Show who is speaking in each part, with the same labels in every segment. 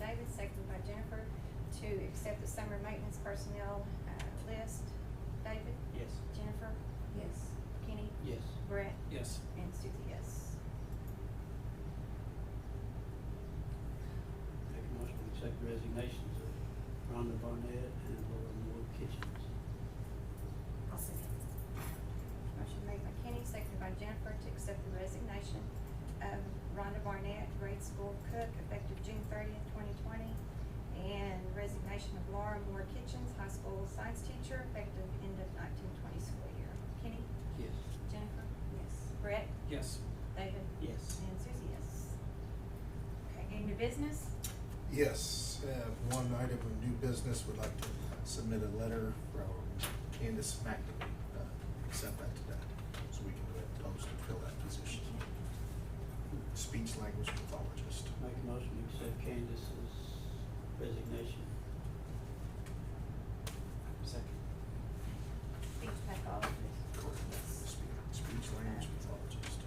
Speaker 1: David, seconded by Jennifer, to accept the summer maintenance personnel, uh, list. David,
Speaker 2: Yes.
Speaker 1: Jennifer? Yes. Kenny?
Speaker 2: Yes.
Speaker 1: Brett?
Speaker 3: Yes.
Speaker 1: And Susie, yes.
Speaker 2: Make a motion to accept resignations of Rhonda Barnett and Laura Moore Kitchens.
Speaker 1: I'll second. Motion made by Kenny, seconded by Jennifer, to accept the resignation of Rhonda Barnett, grade school cook, effective June thirtieth, twenty twenty, and resignation of Laura Moore Kitchens, high school science teacher, effective end of nineteen twenty school year. Kenny?
Speaker 2: Yes.
Speaker 1: Jennifer? Yes. Brett?
Speaker 3: Yes.
Speaker 1: David?
Speaker 2: Yes.
Speaker 1: And Susie, yes. Okay, any new business?
Speaker 4: Yes, uh, one item of new business, would like to submit a letter from Candace McNamee, uh, accept that today, so we can go ahead and post and fill that position. Speech language pathologist.
Speaker 2: Make a motion to accept Candace's resignation.
Speaker 3: Second.
Speaker 1: Speech pathologist.
Speaker 4: Correct.
Speaker 1: Yes.
Speaker 4: Spe- Speech language pathologist.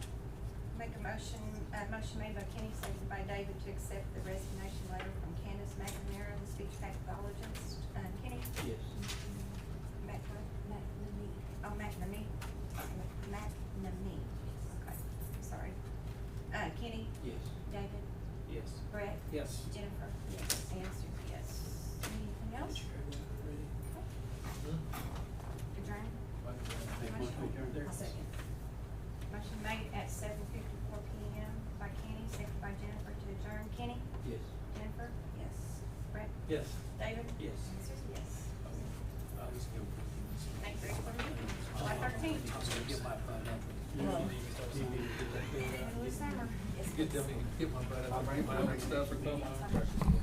Speaker 1: Make a motion, uh, motion made by Kenny, seconded by David to accept the resignation letter from Candace McNamara, the speech pathologist. Uh, Kenny?
Speaker 2: Yes.
Speaker 1: Mac,
Speaker 5: McNamee.
Speaker 1: oh, McNamee. McNamee, okay, sorry. Uh, Kenny?
Speaker 2: Yes.
Speaker 1: David?
Speaker 3: Yes.
Speaker 1: Brett?
Speaker 3: Yes.
Speaker 1: Jennifer? Yes. And Susie, yes. Anything else? Adjourn?
Speaker 2: Make a motion to adjourn.
Speaker 1: I'll second. Motion made at seven fifty-four P M by Kenny, seconded by Jennifer to adjourn. Kenny?
Speaker 2: Yes.
Speaker 1: Jennifer? Yes. Brett?
Speaker 3: Yes.
Speaker 1: David?
Speaker 3: Yes.
Speaker 1: And Susie, yes. Thanks, Rick, for the meeting. July thirteenth.
Speaker 3: I'm gonna get my butt up.
Speaker 1: Well.
Speaker 3: Get
Speaker 1: Middle of summer. Yes,
Speaker 6: Get them,
Speaker 1: yes.
Speaker 6: get my butt up, bring my
Speaker 1: Yes,
Speaker 6: stuff or come
Speaker 1: yes,
Speaker 6: on.
Speaker 1: I'm-